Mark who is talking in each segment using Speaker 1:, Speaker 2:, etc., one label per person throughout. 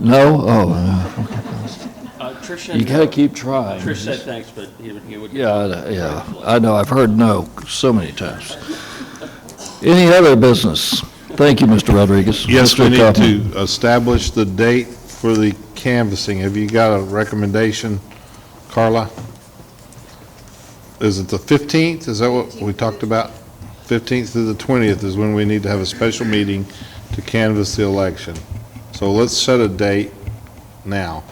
Speaker 1: No? Oh,
Speaker 2: Uh, Trish
Speaker 1: no.
Speaker 2: said
Speaker 1: you gotta
Speaker 2: no.
Speaker 1: keep trying.
Speaker 2: Trish said thanks, but he would, he would.
Speaker 1: Yeah, I- yeah, I know, I've heard no so many times. Any other business? Thank you, Mr. Rodriguez.
Speaker 3: Yes, we
Speaker 1: Mr.
Speaker 3: need
Speaker 1: Kaufman.
Speaker 3: to establish the date for the canvassing. Have you got a recommendation, Carla? Is it the 15th? Is that what we talked about? 15th through the 20th is when we need to have a special meeting to canvass the election. So let's set a date now,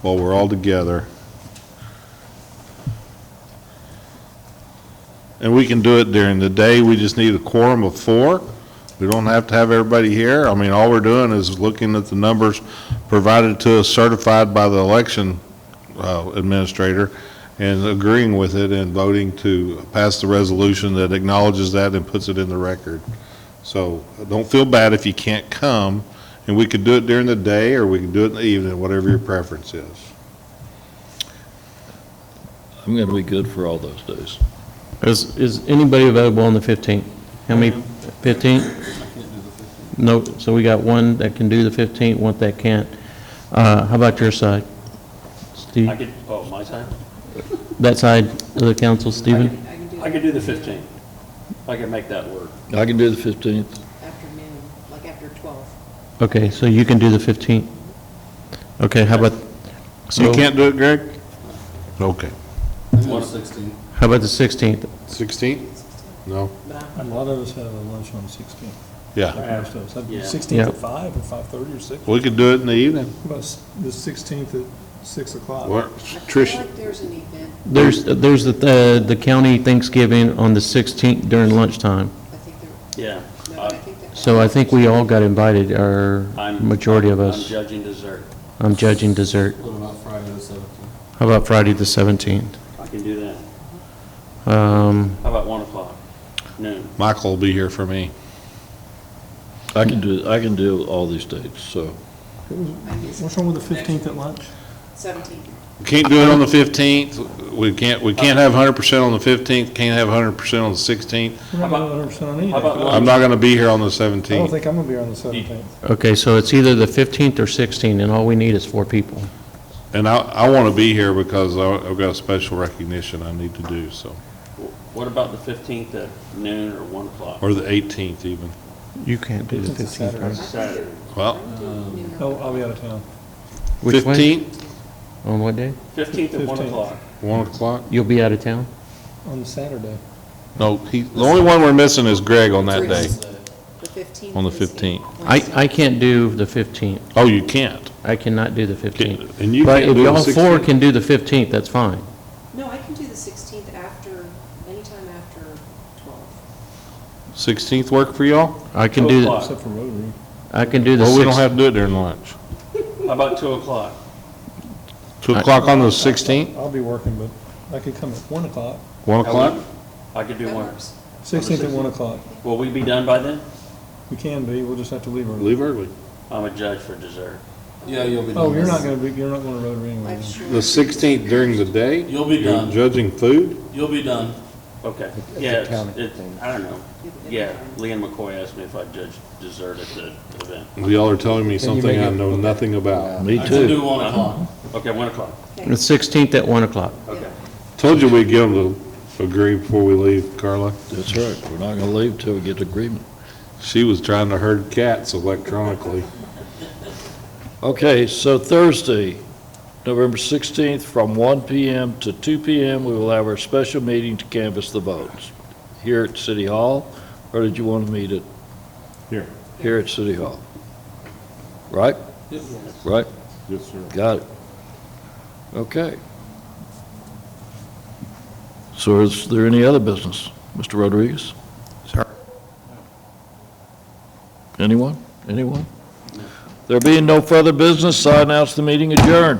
Speaker 3: while we're all together. And we can do it during the day. We just need a quorum of four. We don't have to have everybody here. I mean, all we're doing is looking at the numbers provided to us certified by the election uh, administrator and agreeing with it and voting to pass the resolution that acknowledges that and puts it in the record. So don't feel bad if you can't come, and we could do it during the day or we can do it in the evening, whatever your preference is.
Speaker 1: I'm gonna be good for all those days.
Speaker 4: Is, is anybody available on the 15th? How many, 15th? No, so we got one that can do the 15th, one that can't. Uh, How about your side?
Speaker 2: I
Speaker 4: Steve,
Speaker 2: could, oh, my side?
Speaker 4: that side of the council, Stephen?
Speaker 2: I could do the 15th. I could make that work.
Speaker 1: I can do the fifteenth.
Speaker 5: afternoon, like after 12.
Speaker 4: Okay, so you can do the 15th. Okay, how about,
Speaker 3: You
Speaker 4: so,
Speaker 3: can't do it, Greg? Okay.
Speaker 4: how about the 16th?
Speaker 3: 16th? No?
Speaker 6: A lot of us have a lunch on 16.
Speaker 3: Yeah.
Speaker 6: Most of us. That'd be
Speaker 2: Yeah.
Speaker 6: 16
Speaker 4: Yeah.
Speaker 6: at 5 or 5:30 or 6.
Speaker 3: We could do it in the evening.
Speaker 6: About s- the 16th at 6 o'clock.
Speaker 3: What-
Speaker 5: I
Speaker 3: Trish,
Speaker 5: feel like there's an event,
Speaker 4: There's, there's the, the county Thanksgiving on the 16th during lunchtime.
Speaker 5: I think there,
Speaker 2: Yeah.
Speaker 5: no,
Speaker 2: Uh,
Speaker 5: I think that.
Speaker 4: So I think we all got invited, or
Speaker 2: I'm-
Speaker 4: majority of
Speaker 2: I'm
Speaker 4: us.
Speaker 2: judging dessert.
Speaker 4: I'm judging dessert.
Speaker 7: What about Friday the seventeenth?
Speaker 4: How about Friday the 17th?
Speaker 2: I can do that.
Speaker 4: Um,
Speaker 2: How about 1 o'clock? Noon.
Speaker 3: Michael will be here for me.
Speaker 1: I can do, I can do all these dates, so.
Speaker 6: What's wrong with the 15th at lunch?
Speaker 5: 17.
Speaker 3: We Can't do it on the 15th. We can't, we can't have 100% on the 15th, can't have 100% on the 16th.
Speaker 6: We're
Speaker 2: How
Speaker 6: not
Speaker 2: about-
Speaker 6: 100% on
Speaker 2: how about
Speaker 6: anything.
Speaker 3: I'm not going to be here on the
Speaker 6: I don't
Speaker 3: 17th.
Speaker 6: think I'm going to be here on the 17th.
Speaker 4: Okay, so it's either the 15th or 16th, and all we need is four people.
Speaker 3: And I, I want to be here because I- I've got a special recognition I need to do, so,
Speaker 2: What about the 15th at noon or 1 o'clock?
Speaker 3: or the 18th even.
Speaker 4: You can't do the
Speaker 6: It's a
Speaker 4: 15th.
Speaker 6: Saturday.
Speaker 4: right?
Speaker 2: Saturday.
Speaker 3: Well,
Speaker 6: Oh, I'll be out of town.
Speaker 4: Which one?
Speaker 3: 15th,
Speaker 4: On what day?
Speaker 2: 15th at 1
Speaker 6: 15th.
Speaker 2: o'clock.
Speaker 3: 1 o'clock.
Speaker 4: You'll be out of town?
Speaker 6: On Saturday.
Speaker 3: No, he, the only one we're missing is Greg on that day,
Speaker 5: The 15th.
Speaker 3: on the
Speaker 5: is the
Speaker 3: 15th.
Speaker 4: I, I can't do the 15th.
Speaker 3: Oh, you can't.
Speaker 4: I cannot do the
Speaker 3: Can't-
Speaker 4: 15th.
Speaker 3: And you
Speaker 4: But
Speaker 3: can't
Speaker 4: if
Speaker 3: do the
Speaker 4: y'all four
Speaker 3: 16th.
Speaker 4: can do the 15th, that's fine.
Speaker 5: No, I can do the 16th after, anytime after 12.
Speaker 3: 16th work for y'all?
Speaker 4: I can
Speaker 2: Two
Speaker 4: do, the
Speaker 2: o'clock.
Speaker 6: Except for Rotary.
Speaker 4: I can do the
Speaker 3: Well, we don't
Speaker 4: 16th.
Speaker 3: have to do it during lunch.
Speaker 2: How about 2 o'clock?
Speaker 3: 2 o'clock on the 16th,
Speaker 6: I'll be working, but I could come at 1 o'clock.
Speaker 3: 1 o'clock?
Speaker 2: I could do
Speaker 5: That
Speaker 2: 1.
Speaker 5: works.
Speaker 6: 16th at 1 o'clock.
Speaker 2: Will we be done by then?
Speaker 6: We can be, we'll just have to leave early.
Speaker 3: Leave early.
Speaker 2: I'm a judge for dessert.
Speaker 7: Yeah, you'll be done.
Speaker 6: Oh, you're not going to be, you're not going to Rotary anyway.
Speaker 5: I'm
Speaker 6: then.
Speaker 5: sure.
Speaker 3: The 16th during the day?
Speaker 7: You'll be
Speaker 3: You're
Speaker 7: done.
Speaker 3: Judging food?
Speaker 7: You'll be done.
Speaker 2: Okay. Yeah, it's, it's- I don't know. Yeah, Leanne McCoy asked me if I judged dessert at the event.
Speaker 3: Y'all are telling me something I know nothing about.
Speaker 1: Me
Speaker 7: I can
Speaker 1: too.
Speaker 7: do one o'clock.
Speaker 2: Okay, 1 o'clock.
Speaker 4: The 16th at 1 o'clock.
Speaker 2: Okay.
Speaker 3: Told you we'd give them to agree before we leave, Carla.
Speaker 1: That's right, we're not gonna leave till we get agreement.
Speaker 3: She was trying to herd cats electronically.
Speaker 1: Okay, so Thursday, November 16th, from 1 PM to 2 PM, we will have our special meeting to canvass the votes here at City Hall, or did you want to meet it?
Speaker 3: Here.
Speaker 1: Here at City Hall. Right? Right?
Speaker 3: Yes, sir.
Speaker 1: Got it. Okay. So is there any other business, Mr. Rodriguez? Sir. Anyone? Anyone? There being no further business, I announce the meeting adjourned.